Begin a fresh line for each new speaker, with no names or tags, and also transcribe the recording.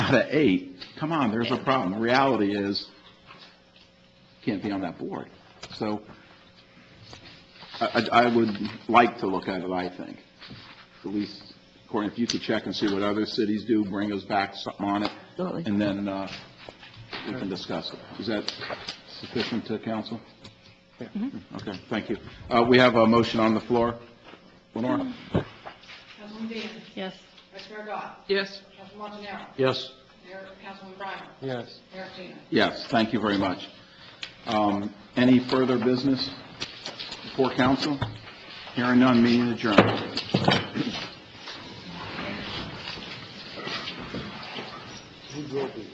out of eight, come on, there's a problem. The reality is, can't be on that board. So I, I I would like to look at it, I think. At least, Courtney, if you could check and see what other cities do, bring us back something on it.
Absolutely.
And then uh, we can discuss it. Is that sufficient to council? Okay, thank you. Uh, We have a motion on the floor. Lenore?
Councilman Dean.
Yes.
Vice Mayor Gott.
Yes.
Councilman Montanaro.
Yes.
Mayor, Councilman Breimer.
Yes.
Mayor Tina.
Yes, thank you very much. Um, Any further business before council? Hearing none, meeting adjourned.